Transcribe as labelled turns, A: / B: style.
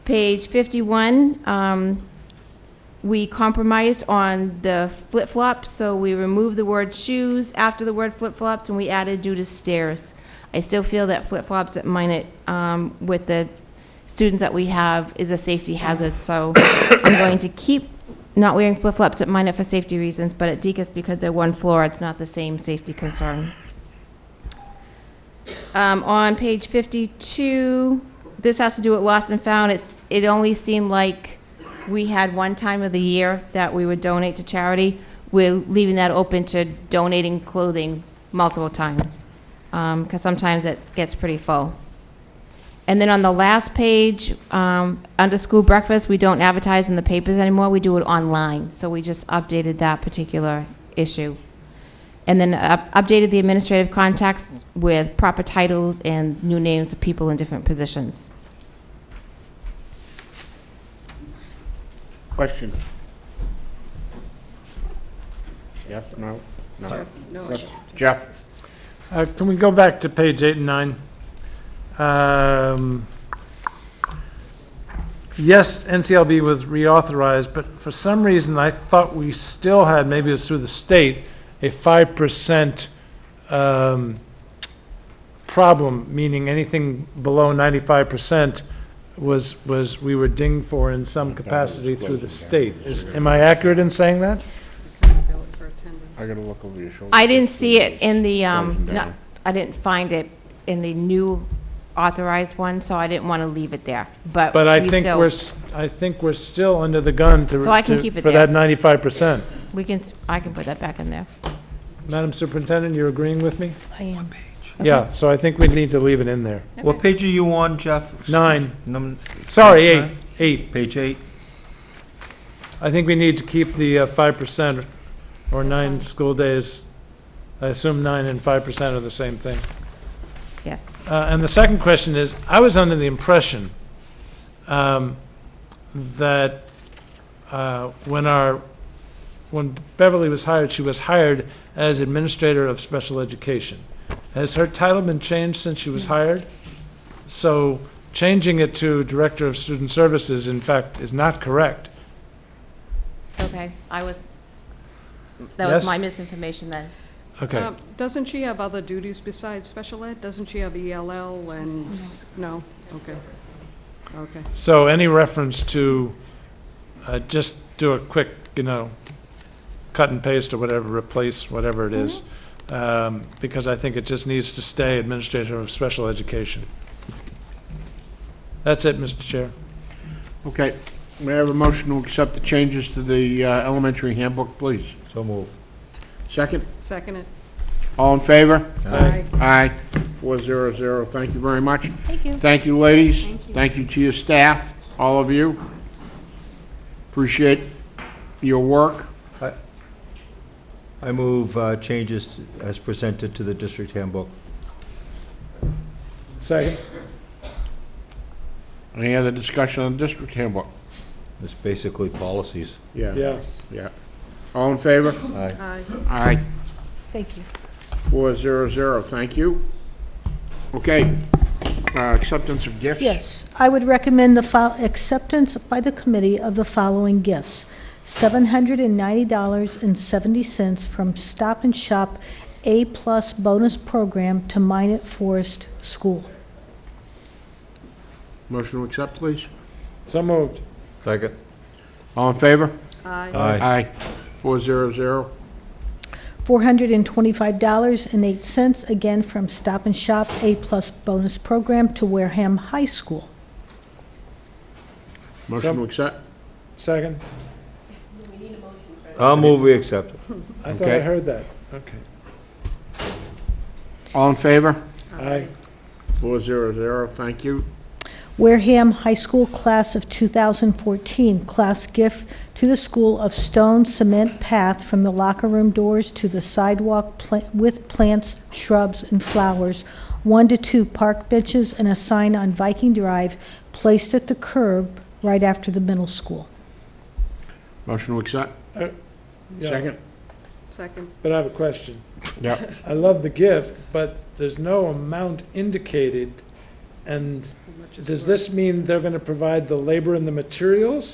A: Page 51, um, we compromised on the flip-flops, so we removed the word shoes after the word flip-flops, and we added due to stairs. I still feel that flip-flops at Minnet, um, with the students that we have, is a safety hazard, so I'm going to keep not wearing flip-flops at Minnet for safety reasons, but at Deacon's, because they're one floor, it's not the same safety concern. Um, on page 52, this has to do with lost and found. It's, it only seemed like we had one time of the year that we would donate to charity. We're leaving that open to donating clothing multiple times, because sometimes it gets pretty full. And then on the last page, um, under school breakfast, we don't advertise in the papers anymore. We do it online. So we just updated that particular issue. And then up- updated the administrative contacts with proper titles and new names of people in different positions.
B: Question? Yes, no? No. Jeff?
C: Uh, Can we go back to page eight and nine? Um, Yes, NCLB was reauthorized, but for some reason, I thought we still had, maybe it was through the state, a 5% um, problem, meaning anything below 95% was, was, we were dinged for in some capacity through the state. Is- Am I accurate in saying that?
B: I gotta look over your shoulder.
A: I didn't see it in the, um,
B: Frozen down.
A: not- I didn't find it in the new authorized one, so I didn't want to leave it there, but.
C: But I
A: we
C: think
A: still-
C: we're, s- I think we're still under the gun to,
A: So I can
C: to-
A: keep it
C: for
A: there.
C: that 95%.
A: We can, s- I can put that back in there.
C: Madam Superintendent, you're agreeing with me?
A: I am.
C: Yeah, so I think we need to leave it in there.
D: What page are you on, Jeff?
C: Nine,
D: Num-
C: sorry, eight, eight.
D: Page eight?
C: I think we need to keep the uh, 5% or nine school days. I assume nine and 5% are the same thing.
A: Yes.
C: Uh, And the second question is, I was under the impression um, that uh, when our, when Beverly was hired, she was hired as Administrator of Special Education. Has her title been changed since she was hired? So changing it to Director of Student Services, in fact, is not correct.
A: Okay, I was, that was
C: Yes?
A: my misinformation then.
C: Okay.
E: Um, Doesn't she have other duties besides special ed? Doesn't she have ELL and, no? Okay. Okay.
C: So any reference to, uh, just do a quick, you know, cut and paste or whatever, replace whatever it is, um, because I think it just needs to stay Administrator of Special Education. That's it, Mr. Chair.
B: Okay, may I have a motion to accept the changes to the uh, elementary handbook, please?
D: So move.
B: Second?
E: Second it.
B: All in favor?
E: Aye.
B: Aye. Four zero zero, thank you very much.
A: Thank you.
B: Thank you, ladies. Thank you to your staff, all of you. Appreciate your work.
D: I move uh, changes as presented to the district handbook.
C: Second.
B: Any other discussion on district handbook?
D: It's basically policies.
B: Yeah,
C: Yes.
B: yeah. All in favor?
D: Aye.
E: Aye.
B: Aye.
F: Thank you.
B: Four zero zero, thank you. Okay, uh, acceptance of gifts?
F: Yes, I would recommend the fol- acceptance by the committee of the following gifts. $790.70 from Stop and Shop A-plus bonus program to Minot Forest School.
B: Motion to accept, please.
C: So moved.
D: Second?
B: All in favor?
E: Aye.
D: Aye.
B: Four zero zero.
F: $425.08, again from Stop and Shop A-plus bonus program to Wareham High School.
B: Motion to accept?
C: Second.
D: I'll move we accept.
C: I
B: thought I Okay.
C: heard that. Okay.
B: All in favor?
C: Aye.
B: Four zero zero, thank you.
F: Wareham High School Class of 2014, class gift to the school of stone cement path from the locker room doors to the sidewalk pla- with plants, shrubs, and flowers, one to two park benches, and a sign on Viking Drive placed at the curb right after the middle school.
B: Motion to accept? Second?
E: Second.
C: But I have a question.
B: Yeah.
C: I love the gift, but there's no amount indicated And
E: How much is
C: does
E: worth?
C: this mean they're going to provide the labor and the materials?